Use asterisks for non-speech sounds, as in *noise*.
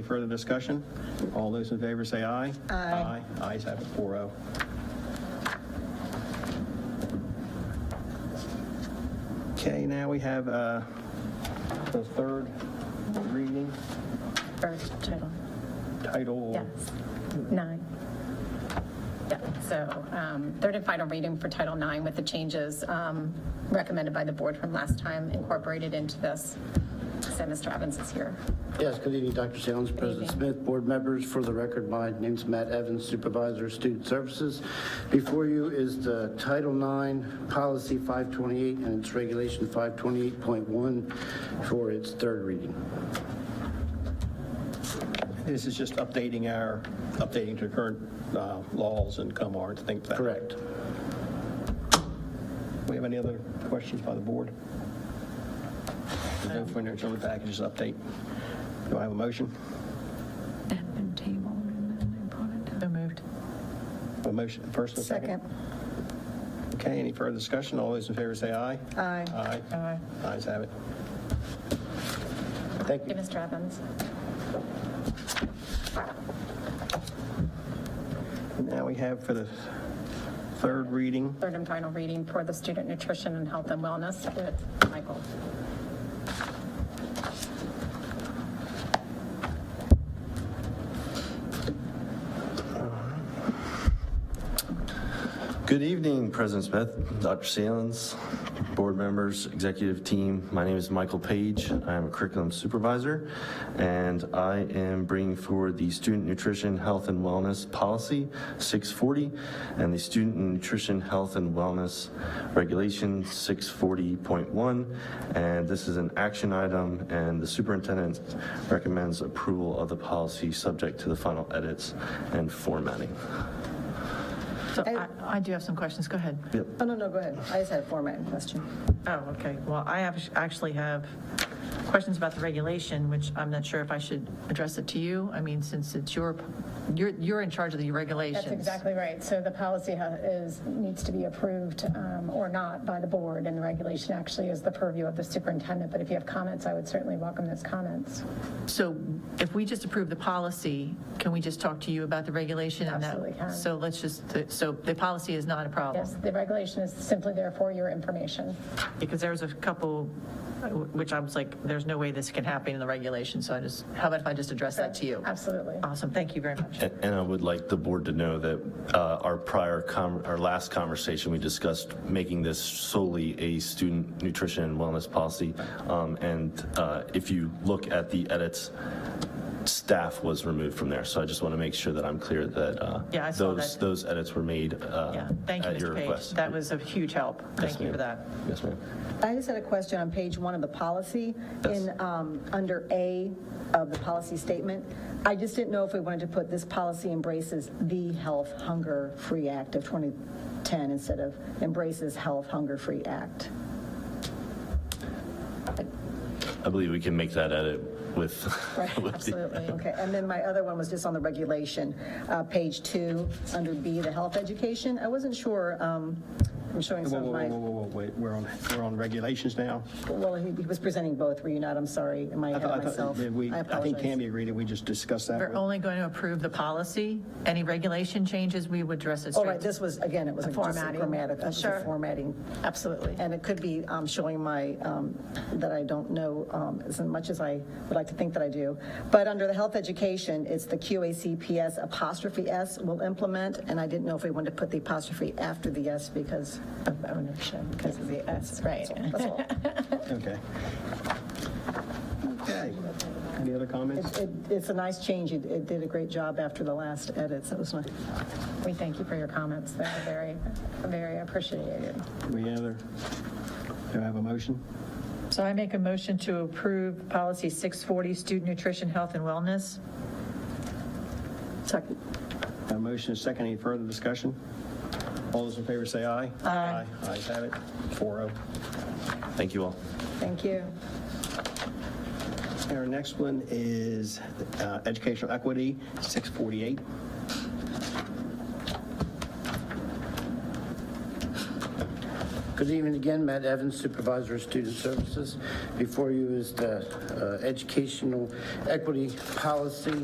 Any further discussion? All those in favor say aye. Aye. Ayes have it, oh. 4-0. Okay, now we have uh, the third reading, First title, title. yes, nine. Yeah, so um, third and final reading for Title IX with the changes um, recommended by the board from last time incorporated into this. So Mr. Evans is here. Yes, good evening, Dr. Salins, President Smith, board members. For the record, my name's Matt Evans, Supervisor of Student Services. Before you is the Title IX Policy 528 and its Regulation 528.1 for its third reading. This is just updating our, updating to current uh, laws and COMAR and things like that. Correct. We have any other questions by the board? There's No further agenda packages update. Do I have a motion? had been tabled and then they brought it down. A motion, first and second? Okay, any further discussion? All those in favor say aye. Aye. Aye. Aye. Ayes have it. Thank you. Hey, Mr. Evans. Now we have for the third reading, Third and final reading for the Student Nutrition and Health and Wellness with Michael. Good evening, President Smith, Dr. Salins, board members, executive team. My name is Michael Page. I am a curriculum supervisor, and I am bringing forward the Student Nutrition, Health, and Wellness Policy 640 and the Student Nutrition, Health, and Wellness Regulation 640.1. And this is an action item, and the superintendent recommends approval of the policy subject to the final edits and formatting. So I, I do have some questions, go ahead. Oh, no, no, go ahead. I just had a formatting question. Oh, okay, well, I have, actually have questions about the regulation, which I'm not sure if I should address it to you. I mean, since it's your, you're, you're in charge of the regulations. That's exactly right. So the policy ha- is, needs to be approved um, or not by the board, and the regulation actually is the purview of the superintendent. But if you have comments, I would certainly welcome those comments. So if we just approve the policy, can we just talk to you about the regulation? and that- Absolutely can. So let's just, so the policy is not a problem? Yes, the regulation is simply there for your information. Because there was a couple, uh, which I was like, there's no way this can happen in the regulation, so I just, how about if I just address that to you? Absolutely. Ah, Awesome, thank you very much. And and I would like the board to know that uh, our prior, com- our last conversation, we discussed making this solely a student nutrition and wellness policy. Um, And uh, if you look at the edits, staff was removed from there. So I just want to make sure that I'm clear that Yeah, I uh, saw those, that. those edits were made uh, Yeah, thank you, at your Mr. Page. request. That was a huge help. Yes, Thank you ma'am. for that. Yes, ma'am. I just had a question on page one of the policy, in, um, under A of the policy statement. I just didn't know if we wanted to put this policy embraces the Health Hunger Free Act of 2010 instead of embraces Health Hunger Free Act. I believe we can make that edit with. *laughs* with the- *laughs* Absolutely. Okay, and then my other one was just on the regulation, uh, page two, under B, the health education. I wasn't sure, um, I'm showing whoa, some whoa, of whoa, whoa, my, whoa, whoa, wait, we're on, we're on regulations now. well, he he was presenting both, were you not? I'm sorry, am I I ahead thought- of I thought- myself? did we- I I think apologize. Tammy agreed that we just discussed that. We're only going to approve the policy. Any regulation changes, we would address it Oh, straight. right, this was, again, it was just a formatting. grammatical, it was a Sure. formatting. Absolutely. And it could be um, showing my, um, that I don't know um, as much as I would like to think that I do. But under the health education, it's the QACPS apostrophe S will implement, and I didn't know if we wanted to put the apostrophe after the S because of ownership, because of the S. Right. That's all. Okay. Okay. Any other comments? It- It's a nice change, it it did a great job after the last edits, that was nice. *laughs* We thank you for your comments. They're very, very appreciated. Any other? Do I have a motion? So I make a motion to approve policy 640, student nutrition, health and wellness. Second. A motion is second. Any further discussion? All those in favor say aye. Aye. Ayes have it, oh. 4-0. Thank you all. Thank you. Our next one is uh, educational equity, 648. Good evening again, Matt Evans, Supervisor of Student Services. Before you is the uh, Educational Equity Policy